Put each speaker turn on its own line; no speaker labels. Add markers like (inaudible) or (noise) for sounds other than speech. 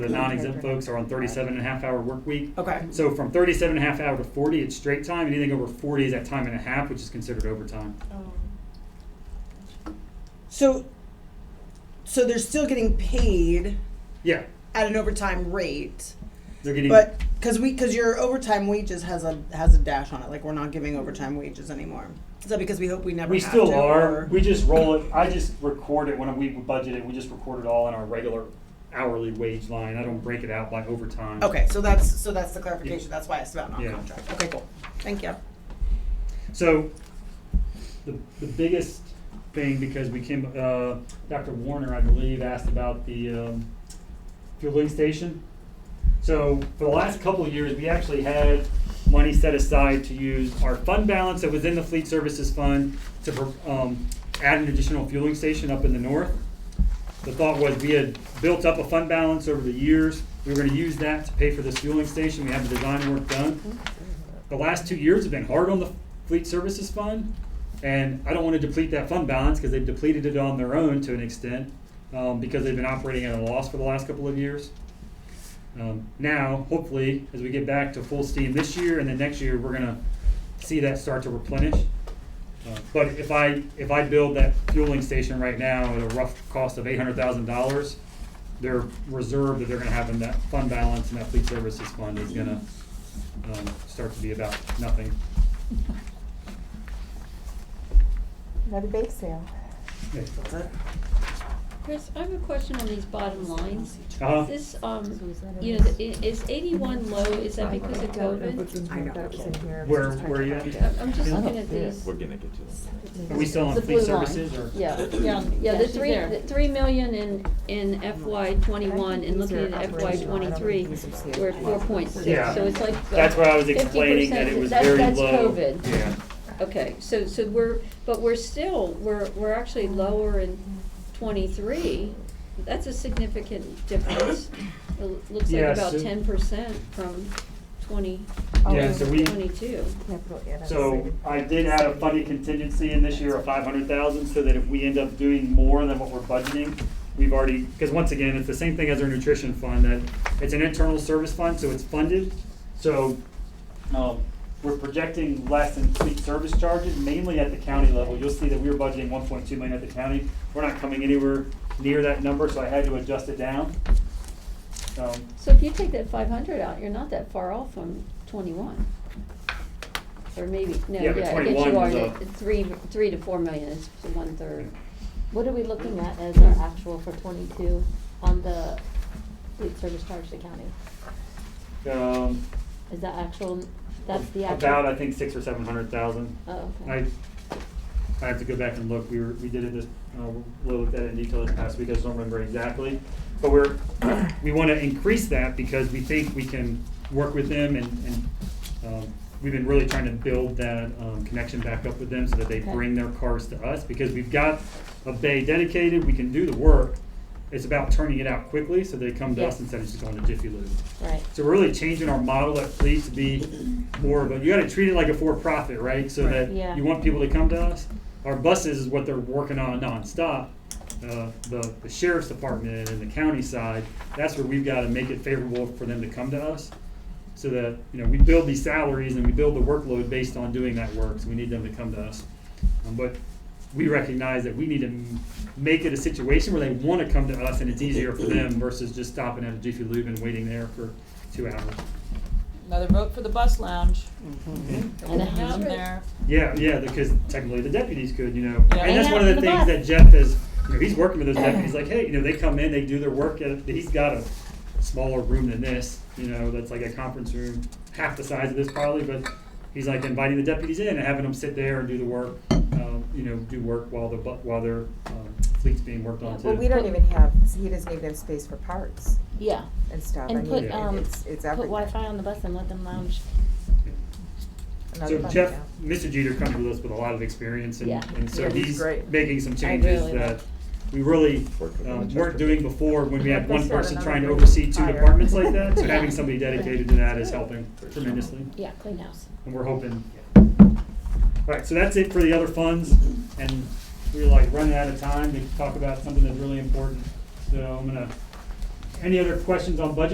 The non-exempt folks are on 37 and a half hour work week.
Okay,
So from 37 and a half hour to 40, it's straight time. Anything over 40 is at time and a half, which is considered overtime.
so, so they're still getting paid
Yeah,
at an overtime rate,
they're getting.
but, cause we, cause your overtime wages has a, has a dash on it, like we're not giving overtime wages anymore. Is that because we hope we never
we
have
still
to,
are.
or-
We just roll it. I just record it when we budget it. We just record it all in our regular hourly wage line. I don't break it out by overtime.
Okay, so that's, so that's the clarification, that's why it's about
Yeah.
non-contract, okay, cool, thank you.
So, the, the biggest thing, because we came, uh, Dr. Warner, I believe, asked about the, um, fueling station. So, for the last couple of years, we actually had money set aside to use our fund balance that was in the fleet services fund to, pro- um, add an additional fueling station up in the north. The thought was we had built up a fund balance over the years. We were gonna use that to pay for this fueling station. We have the design work done the last two years have been hard on the fleet services fund, and I don't want to deplete that fund balance because they've depleted it on their own to an extent um, because they've been operating at a loss for the last couple of years. Um, now, hopefully, as we get back to full steam this year and then next year, we're gonna see that start to replenish. Uh, but if I if I build that fueling station right now at a rough cost of eight hundred thousand dollars, their reserve that they're gonna have in that fund balance and that fleet services fund is gonna um, start to be about nothing.
Another bake sale.
Uh-huh.
Chris, I have a question on these bottom lines.
Uh-huh.
This, um, you know, the- i- is eighty-one low, is that because of COVID?
I know. That was in here.
Where- where you at?
I'm I'm just
Yeah.
looking at these.
We're gonna get to that.
Are we still on
The
fleet
blue line.
services or?
Yeah, yeah, yeah, the
she's
three,
there.
the three million in, in FY twenty-one and looking at FY twenty-three, we're at four point
Yeah.
six, so it's like. uh,
That's where I was explaining
50%.
that it was
That's-
very
that's
low.
COVID.
Yeah.
Okay, so, so we're, but we're still, we're, we're actually lower in twenty-three. That's a significant difference. It l- looks like
Yeah,
about
so-
ten percent from twenty,
Yeah, so we,
twenty-two.
so I did add a funding contingency in this year of five hundred thousand, so that if we end up doing more than what we're budgeting, we've already, because once again, it's the same thing as our nutrition fund, that it's an internal service fund, so it's funded. So, um, we're projecting less in fleet service charges, mainly at the county level. You'll see that we were budgeting one point two million at the county. We're not coming anywhere near that number, so I had to adjust it down. Um,
So if you take that five hundred out, you're not that far off from twenty-one. Or maybe, no,
Yeah,
yeah,
but
I guess
21
you are,
was
at
a-
three, three to four million is one-third.
What are we looking at as our actual for twenty-two on the food service charge to county?
Um,
Is that actual, that's the actual?
About, I think, six or seven hundred thousand.
Oh,
I,
okay.
I have to go back and look, we were, we did it this, uh, we looked at it in detail this past week, I just don't remember exactly. But we're, we wanna increase that because we think we can work with them and, and, um, we've been really trying to build that, um, connection back up with them so that they
Okay.
bring their cars to us, because we've got a bay dedicated, we can do the work. It's about turning it out quickly, so they come to us
Yes.
instead of just going to Jiffy Lube.
Right.
So we're really changing our model at Fleet to be more of a, you gotta treat it like a for-profit, right? So that
Yeah.
you want people to come to us. Our buses is what they're working on nonstop. Uh, the, the sheriff's department and the county side, that's where we've gotta make it favorable for them to come to us. So that, you know, we build these salaries and we build the workload based on doing that work, so we need them to come to us. Um, But we recognize that we need to m- make it a situation where they want to come to us and it's easier for them versus just stopping at a Jiffy Lube and waiting there for two hours.
Another vote for the bus lounge.
And a
Putting them
hundred.
there.
Yeah, yeah, because technically the deputies could, you know.
Yeah.
And that's
And
one of the
the
things
bus.
that Jeff is, you know, he's working with those deputies, like, hey, you know, they come in, they do their work, at- he's got a smaller room than this, you know, that's like a conference room, half the size of this probably, but he's like inviting the deputies in and having them sit there and do the work, um, you know, do work while the, bu- while their um, fleet's being worked on too.
But we don't even have, he doesn't even have space for parts
Yeah,
and stuff. I
and
mean,
put,
Yeah.
um,
it's,
put
it's everything.
Wi-Fi on the bus and let them lounge.
Another
So
fund
Jeff,
account.
Mr. Jeter comes with us with a lot of experience and,
Yeah.
and so
Yeah, he's
he's
great.
making some changes
really
that
like-
we really
Worked with
um,
him.
weren't doing before when we had one
Like I said,
person
another
trying to
great
oversee two
hire.
departments like that. So
(laughs) Yeah.
having somebody dedicated to that is helping tremendously.
Yeah, clean house.
And we're hoping. All right, so that's it for the other funds. And we're like running out of time to talk about something that's really important. So I'm gonna Any other questions on budget?